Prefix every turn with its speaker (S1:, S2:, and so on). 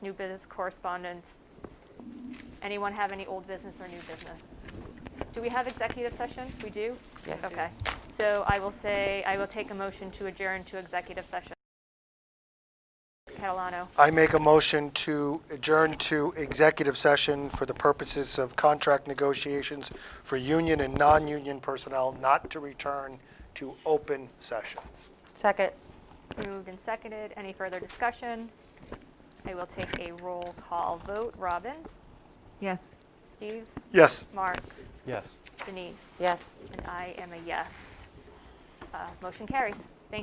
S1: new business correspondence. Anyone have any old business or new business? Do we have executive session? We do?
S2: Yes.
S1: Okay. So I will say, I will take a motion to adjourn to executive session. Catalano.
S3: I make a motion to adjourn to executive session for the purposes of contract negotiations for union and non-union personnel, not to return to open session.
S2: Second.
S1: Moved and seconded. Any further discussion? I will take a roll call vote. Robin?
S4: Yes.
S1: Steve?
S3: Yes.
S1: Mark?
S5: Yes.
S1: Denise?
S2: Yes.
S1: And I am a yes. Uh, Motion carries.